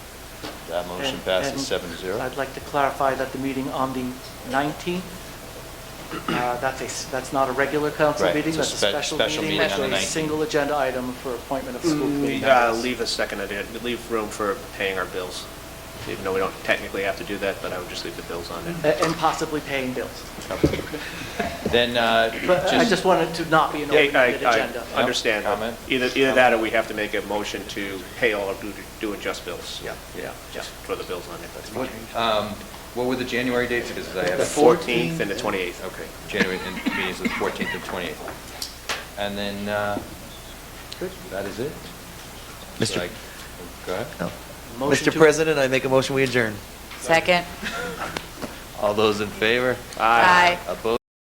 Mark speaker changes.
Speaker 1: That Uh, motion
Speaker 2: And-
Speaker 1: passes
Speaker 2: and
Speaker 1: seven zero.
Speaker 2: I'd like to clarify that the meeting on the 19th, uh, that's a, s- that's not a regular council
Speaker 1: Right,
Speaker 2: meeting,
Speaker 1: it's a
Speaker 2: that's a
Speaker 1: spe-
Speaker 2: special
Speaker 1: special
Speaker 2: meeting.
Speaker 1: meeting on the
Speaker 2: with a
Speaker 1: 19th.
Speaker 2: Single agenda item for appointment of school committee
Speaker 3: Mm, uh,
Speaker 2: members.
Speaker 3: Leave a second, idea- leave room for paying our bills, even though we don't technically have to do that, but I would just leave the bills on it.
Speaker 2: A- And possibly paying bills.
Speaker 1: Then, uh,
Speaker 2: But I
Speaker 1: just,
Speaker 2: just wanted to not be an
Speaker 3: Yeah, I-
Speaker 2: open-ended agenda.
Speaker 3: I understand.
Speaker 1: Comment?
Speaker 3: Either, either that or we have to make a motion to pay all our due, due and just bills. Yeah, yeah. Just throw the bills on
Speaker 4: What,
Speaker 3: it.
Speaker 4: um, what were the January dates? Because I have.
Speaker 3: The 14th and the 28th.
Speaker 4: Okay.
Speaker 1: January, and meetings the 14th and 28th. And then, uh, that is it?
Speaker 5: Mr.
Speaker 1: Like, Go ahead.
Speaker 5: No.
Speaker 2: Motion
Speaker 5: Mr.
Speaker 2: to-
Speaker 5: President, I make a motion, we adjourn.
Speaker 6: Second.
Speaker 5: All those in favor?
Speaker 6: Aye.
Speaker 5: Opposed?